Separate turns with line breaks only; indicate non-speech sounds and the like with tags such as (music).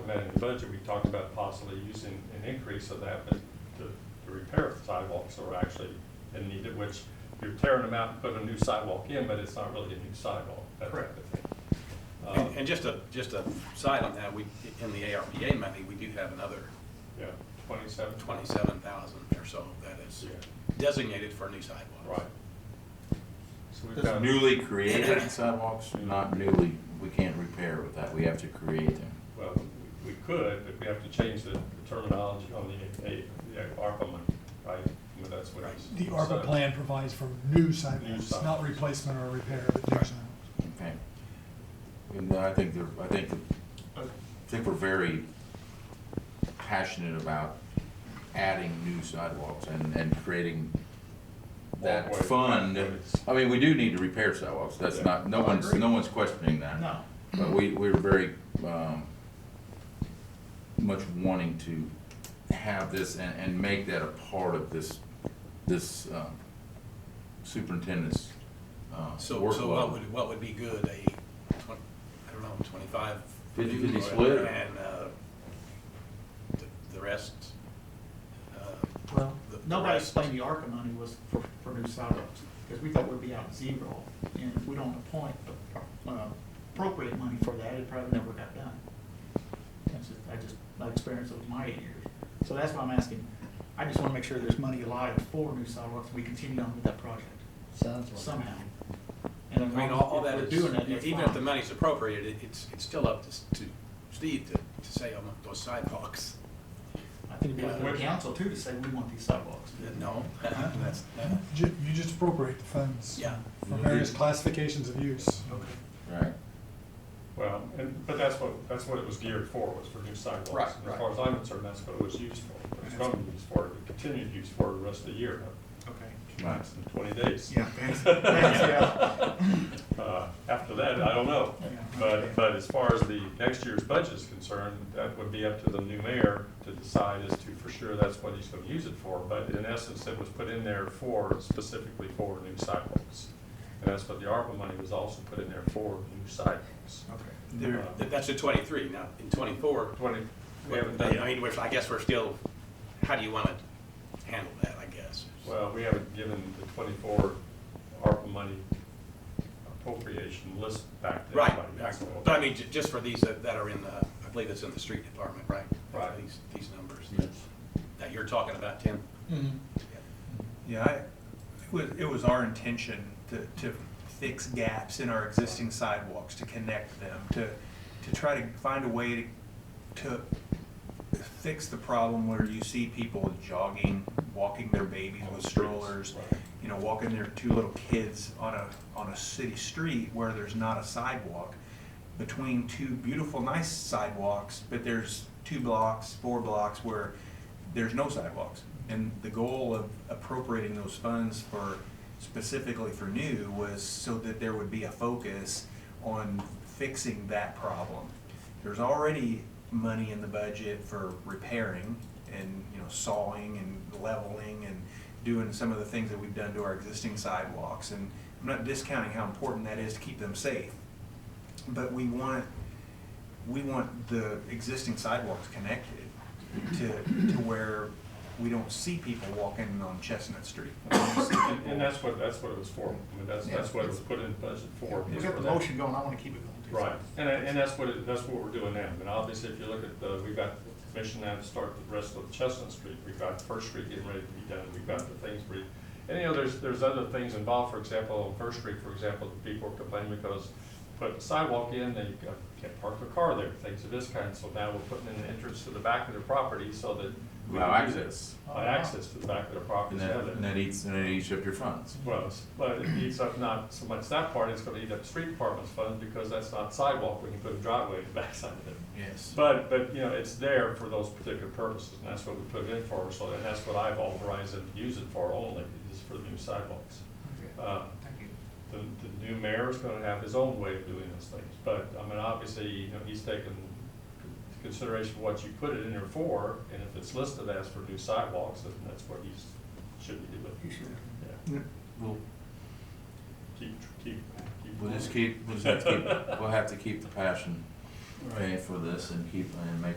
about in the budget, we talked about possibly using an increase of that, but to, to repair the sidewalks that were actually in need of which you're tearing them out and putting a new sidewalk in, but it's not really a new sidewalk, that type of thing. Um,
And, and just a, just a side on that, we, in the ARPA money, we do have another
Yeah, twenty-seven,
twenty-seven thousand or so that is
Yeah.
designated for new sidewalks.
right. So we've
That's
got,
Newly created sidewalks, not newly, we can't repair with that, we have to create them.
well, we we could, but we have to change the terminology on the, A- the ARPA money, right? I mean, that's what it's.
The ARPA
so-
plan provides for new
New
sidewalks,
sidewalks.
not replacement or repair, but new
Right.
sidewalks.
Okay. And I think they're, I think, I think we're very passionate about adding new sidewalks and, and creating that
Walkways,
fund.
pathways.
I mean, we do need to repair sidewalks, that's
Yeah.
not, no one's, no one's questioning that.
No.
But we, we're very, um, much wanting to have this and, and make that a part of this, this, um, superintendent's, uh,
So, so what
workload.
would, what would be good, a twen, I don't know, twenty-five?
50/50
or-
split?
And, uh, the, the rest, uh,
Well,
The- the
nobody
rest.
explained the ARCA money was for, for new sidewalks, because we thought we'd be out zero, and if we don't appoint, uh, appropriate money for that, it probably never got done. That's just, I just, my experience of my eight years, so that's why I'm asking, I just wanna make sure there's money alive for new sidewalks, we continue on with that project
Sounds like.
somehow. And
I
as
mean,
long
all, all
as
that
we're
is,
doing that, that's
even if the
fine.
money's appropriated, it- it's, it's still up to, s- to Steve to, to say, I want those sidewalks. (laughs)
I think it'd be up to the council too to say, we want these sidewalks.
No,
Uh-huh.
that's, that-
Ju- You just appropriate the funds.
yeah.
For various classifications of use.
Okay.
Right.
Well, and, but that's what, that's what it was geared for, was for new sidewalks.
Right,
And
right.
As far as I'm concerned, that's what it was used for, What it's going to be used for, it continued to use for the rest of the year,
Okay.
Right.
in twenty days.
Yeah, thanks, thanks, (laughs) yeah.
Uh, After that, I don't know.
Yeah.
But, but as far as the next year's budget is concerned, that would be up to the new mayor to decide as to for sure that's what he's going to use it for. But in essence, it was put in there for, specifically for new sidewalks. And that's what the ARPA money was also put in there for, new sidewalks. Uh,
Okay.
There, that- that's in twenty-three, now, in twenty-four,
Twenty, we haven't done.
I mean, we're, I guess we're still, how do you wanna handle that, I guess?
Well, we haven't given the twenty-four ARPA money appropriation list back to
Right,
anybody. That's all.
but I mean, ju- just for these that that are in the, I believe it's in the street department, right?
Right.
These, these numbers that- that you're talking about, Tim?
Yeah, I, it was, it was our intention to, to fix gaps in our existing sidewalks, to connect them, to, to try to find a way to, to fix the problem where you see people jogging, walking their babies
On the
with
streets,
strollers,
right.
you know, walking their two little kids on a, on a city street where there's not a sidewalk between two beautiful, nice sidewalks, but there's two blocks, four blocks where there's no sidewalks. And the goal of appropriating those funds for, specifically for new, was so that there would be a focus on fixing that problem. There's already money in the budget for repairing and, you know, sawing and leveling and doing some of the things that we've done to our existing sidewalks. And I'm not discounting how important that is to keep them safe, but we want, we want the existing sidewalks connected to, to where we don't see people walking on Chestnut Street. We don't see
And
people-
and that's what, that's what it was for. I mean, that's, that's what it was put in budget for.
We
was
got
for
the
that.
motion going, I wanna keep it going. too.
Right, and, I- and that's what, it- that's what we're doing now. And obviously, if you look at the, we've got the commission now to start the rest of Chestnut Street. We've got First Street getting ready to be done. We've got the things we, and you know, there's, there's other things involved. For example, on First Street, for example, the people are complaining because put the sidewalk in, they uh, can't park their car there, things of this kind. So now we're putting in an entrance to the back of their property so that. we
Allow
can do
access.
that. Allow access to the back of their property.
And
so
that,
that-
and that eats, and that eats up your funds.
well, it's- but it eats up not so much that part, it's gonna eat up street department's fund because that's not sidewalk, we can put a driveway in the (laughs) backside of it.
Yes.
But, but, you know, it's there for those particular purposes, and that's what we put it in for, so, and that's what I've authorized them to use it for only, is for the new sidewalks.
Okay.
Uh,
Thank you.
the, the new mayor's gonna have his own way of doing those things, but, I mean, obviously, you know, he's taken into consideration what you put it in there for, and if it's listed as for new sidewalks, then that's what he's, should be doing,
You should.
yeah.
We'll,
Keep, keep, keep.
we'll just
going.
keep, we'll just have to keep, we'll have to keep the passion, okay, for this and keep, and make